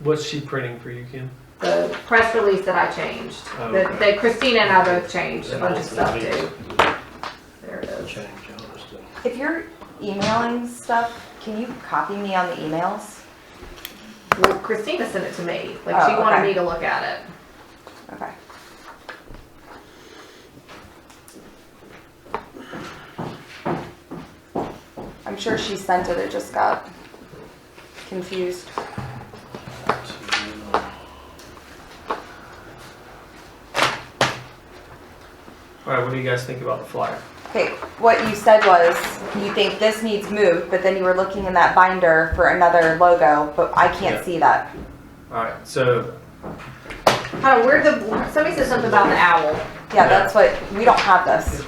What's she printing for you, Kim? the press release that I changed. Oh, That okay. that Christina and I both changed a That bunch of was the stuff big too. There it is. Change, honestly. If you're emailing stuff, can you copy me on the emails? Well, Christina sent it to me. Like she Oh, wanted okay. me to look at it. Okay. I'm sure she sent it, it just got confused. All right, what do you guys think about the flyer? Okay, what you said was, you think this needs moved, but then you were looking in that binder for another logo, but I Yeah. can't see that. All right, so Hold on, where the somebody said something about the owl. Yeah, that's what, we don't have this.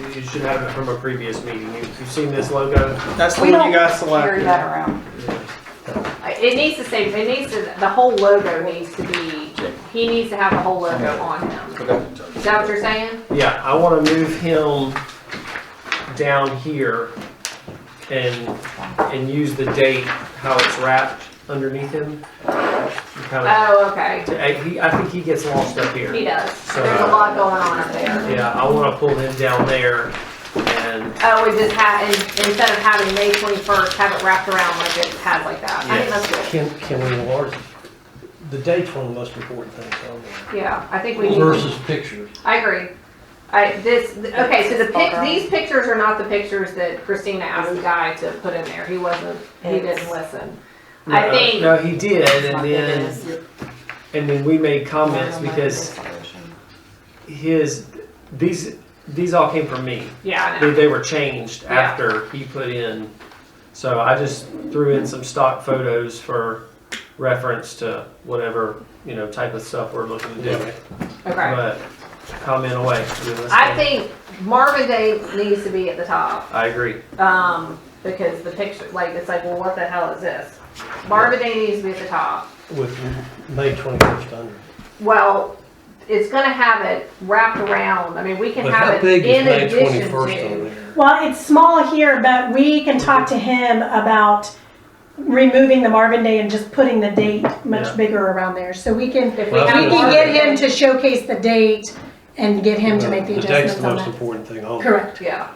you- you should have it from a previous meeting. You- You've seen this logo? That's the We one don't you guys carry selected. that around. Yeah. I- It needs to say it needs to the whole logo needs to be he needs to have the whole logo on him. Is that what you're saying? Yeah, I want to move him down here and, and use the date, how it's wrapped underneath him. Kind of- Oh, okay. I, he- I think he gets lost up here. He does. So- There's a lot going on up there. Yeah, I want to pull him down there and, Oh, we just had, instead of having May twenty-first, have it wrapped around like it has like that. I think that's yes. good. Can, can we enlarge, the date's one of the most important things on Yeah, I think we there. need. Versus pictures. I agree. I, this, th- okay, so the pic, Photo. these pictures are not the pictures that Christina asked the guy to put in there. He wasn't, he didn't listen. I No, think- No, Oh he did, My and thing then, is- and then we made comments Oh I don't know because the resolution. his, these, these all came from me. Yeah, I They, know. they were changed Yeah. after he put in, so I just threw in some stock photos for reference to whatever, you know, type of stuff we're looking to do. Okay. But comment away. You know, let's I go. think Marvin Day needs to be at the top, I agree. um, because the picture, like, it's like, well, what the hell is this? Marvin Day needs to be at the top. With May twenty-first under. Well, it's gonna have it wrapped around. I mean, we can But have how it big is in May addition twenty-first on to. there? Well, it's small here, but we can talk to him about removing the Marvin Day and just putting the date Yeah. much bigger around there. So we can, we If we Well, have we can get Marvin him Day- to showcase the date and get him to make the date's the adjustments on most that. important thing on there. Correct. Yeah, Okay.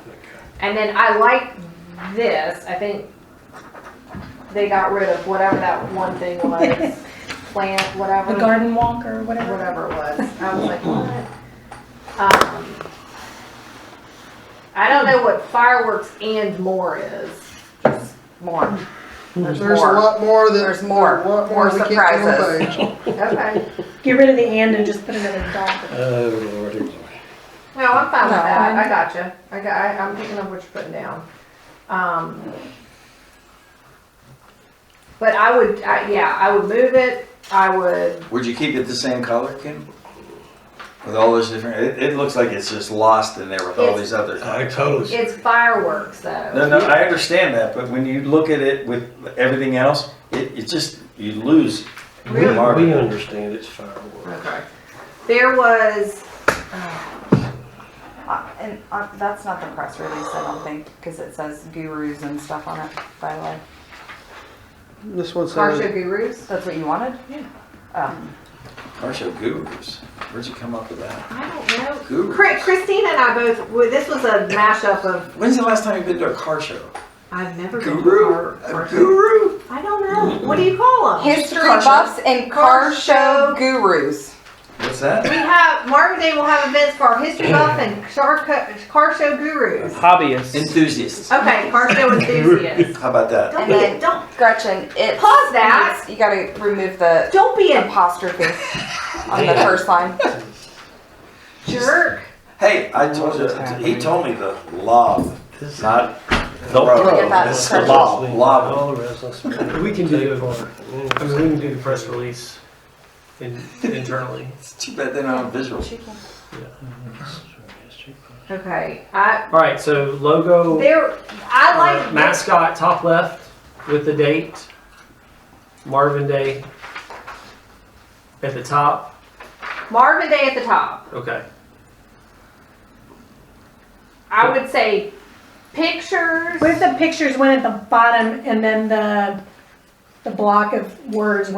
and then I like this. I think they got rid of whatever that one thing was. Plant, whatever. The garden walk or whatever. Whatever it was. I was like, what? Mm-hmm. Um, I don't know what fireworks and more is. More. Mm-hmm. There's a lot more that. There's more. a lot More we can't get on surprises. page. Okay. Get rid of the and and just put another dot. Oh, lordy, lordy. No, I'm fine with No. that. I gotcha. I got, I, I'm picking up what you're putting down. Um, but I would, I, yeah, I would move it. I would, Would you keep it the same color, Kim? With all those different, it, it looks like it's just lost in there with all It's- these other things. I totally, it's fireworks No, though. no, I understand that, but when you look at it with everything else, it, it just, you lose. we, the mark. we understand it's fireworks. Okay. There was, uh, Uh, And uh, that's not the press release, I don't think, because it says gurus and stuff on it, by the way. This one car show says, gurus. That's what you wanted? Yeah. Oh. Car show gurus, where'd you come up with that? I don't know. Gurus. Chri- Christina and I both, well, this was a mashup of, When's the last time you've been to a car show? I've never been to Guru, a car- a guru? I don't know. What do you call them? History buffs and car show gurus. What's We that? have, Marvin Day will have events for our history buff and car, co- car show gurus. Hobbyists. Enthusiasts, Okay, car show enthusiasts. how about that? Don't be, don't, Gretchen, it. Pause that. You gotta remove the don't be a apostrophe on the first line. jerk. Hey, I told you, he told me the lob, This- not the Don't forget road, that it's the precious- lob, lob. All the rest, let's- We can do it. I mean, we can do the press release in, internally. It's too bad they're not on visual. Okay, I, All right, so logo. there, I Uh, like, this- mascot top left with the date Marvin Day at the top. Marvin Day at the top. Okay. I would say pictures. What if the pictures went at the bottom and then the the block of words